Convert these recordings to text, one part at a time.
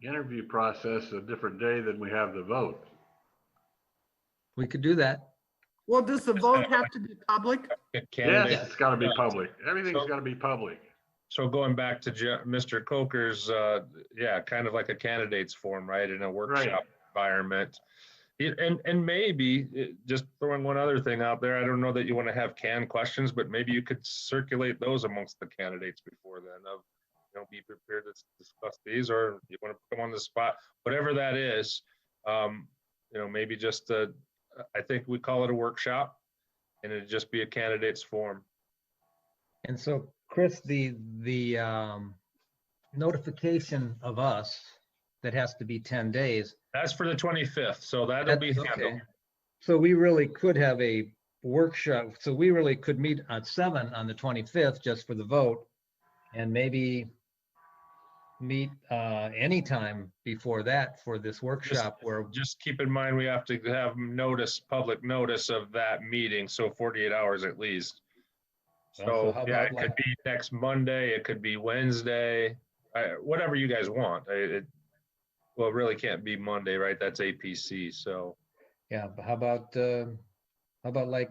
the interview process a different day than we have the vote. We could do that. Well, does the vote have to be public? Yes, Candidate, it's gotta be Yeah. public. Everything's So- gotta be public. so going back to Je- Mr. Coker's, uh, yeah, kind of like a candidates forum, right, in a workshop environment. It- And, and maybe, it- just throwing one other thing out there, I don't know that you want to have canned questions, but maybe you could circulate those amongst the candidates before then of, you know, be prepared to s- discuss these, or you want to put them on the spot, whatever that is. Um, you know, maybe just, uh, I think we call it a workshop, and it'd just be a candidates forum. And so, Chris, the, the um, notification of us that has to be 10 days. That's for the twenty-fifth, so that'll be that's- handled. okay. So we really could have a workshop, so we really could meet at 7 on the 25th just for the vote and maybe meet uh, anytime before that for this workshop where, Just keep in mind, we have to have notice, public notice of that meeting, so forty-eight hours at least. Well, so So, how yeah, about it could like- be next Monday, it could be Wednesday, I- whatever you guys want. I- It, well, it really can't be Monday, right? That's APC, so. yeah, but how about, uh, how about like,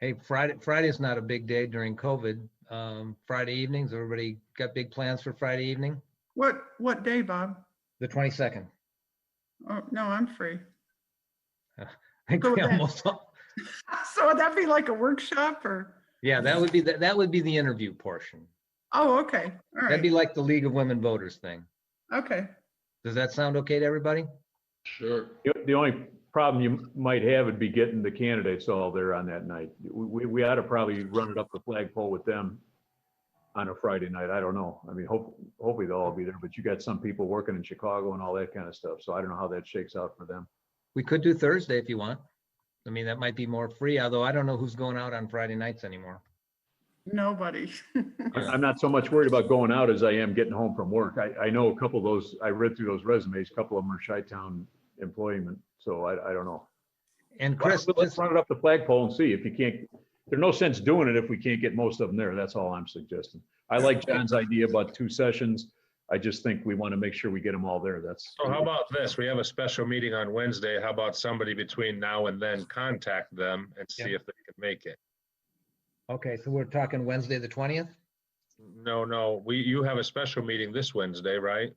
hey, Friday, Friday's not a big day during COVID. Um, Friday evenings, everybody got big plans for Friday evening? What, what day, Bob? The twenty-second. Oh, no, I'm free. I think So we that- almost, all- So would that be like a workshop or? yeah, that would be, the- that would be the interview portion. Oh, okay, all That'd be right, like the League of Women Voters thing. okay. Does that sound okay to everybody? Sure. The- The only problem you might have would be getting the candidates all there on that night. We, we- we ought to probably run it up the flagpole with them on a Friday night. I don't know. I mean, hope, hopefully they'll all be there, but you got some people working in Chicago and all that kind of stuff. So I don't know how that shakes out for them. We could do Thursday if you want. I mean, that might be more free, although I don't know who's going out on Friday nights anymore. Nobody. I- I'm not so much worried about going out as I am getting home from work. I, I know a couple of those, I read through those resumes, a couple of them are Chi-Town employment, so I, I don't know. And Why don't Chris, we- Let's just- run it up the flagpole and see if you can't, there's no sense doing it if we can't get most of them there. That's all I'm suggesting. I like John's idea about two sessions. I just think we want to make sure we get them all there. That's. So how about this? We have a special meeting on Wednesday. How about somebody between now and then contact them and see if they can make it? okay, so we're talking Wednesday, the twentieth? No, no, we, you have a special meeting this Wednesday, right?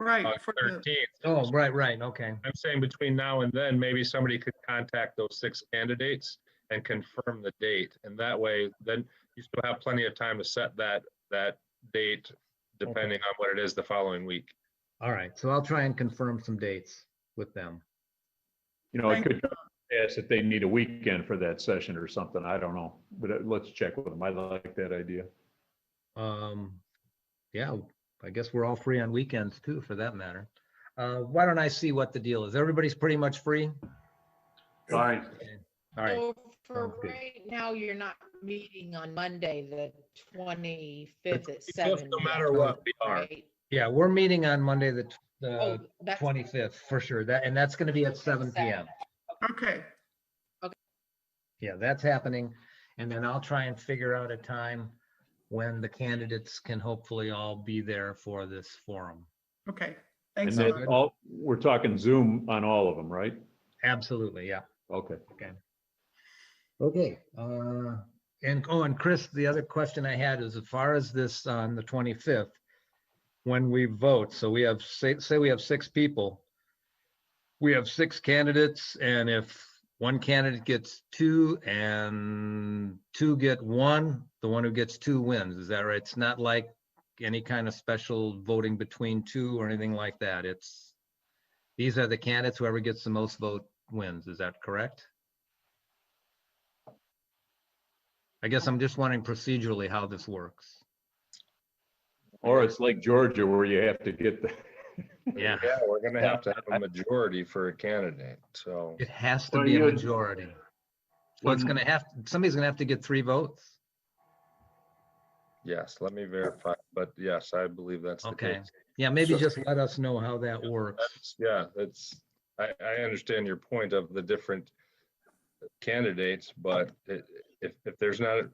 Right, for the, Uh, Thirteenth. Oh, right, right, okay. I'm saying between now and then, maybe somebody could contact those six candidates and confirm the date. And that way, then you still have plenty of time to set that, that date, depending on what it is the following week. All right, so I'll try and confirm some dates with them. You know, it could ask if they need a weekend for that session or something. I don't know, but uh, let's check with them. I like that idea. Um, yeah, I guess we're all free on weekends too, for that matter. Uh, why don't I see what the deal is? Everybody's pretty much free? Fine. All right, So for sounds good. right now, you're not meeting on Monday, the twenty-fifth at seven. No matter what, we are. right? yeah, we're meeting on Monday, the, tw- Oh, the that's- twenty-fifth, for sure, that, and that's gonna be at seven PM. okay, Yeah, that's happening, and then I'll try and figure out a time when the candidates can hopefully all be there for this forum. okay. And Thanks a lot. then all, we're talking Zoom on all of them, right? Absolutely, yeah. Okay. Okay, uh, and, oh, and Chris, the other question I had is as far as this on the 25th, when we vote, so we have, say, say we have six people. We have six candidates and if one candidate gets two and two get one, the one who gets two wins, is that right? It's not like any kind of special voting between two or anything like that. It's, these are the candidates, whoever gets the most vote wins, is that correct? I guess I'm just wondering procedurally how this works. Or it's like Georgia where you have to get the, Yeah, Yeah, we're gonna have to have a majority for a candidate, so. it has to Well, be a you- majority. So it's gonna have, somebody's gonna have to get three votes. Yes, let me verify, but yes, I believe that's the Okay. case. Yeah, maybe So- just let us know how that works. That's- Yeah, that's, I, I understand your point of the different candidates, but i- if, if there's not,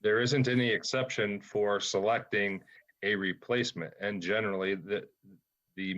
there isn't any exception for selecting a replacement. And generally, the,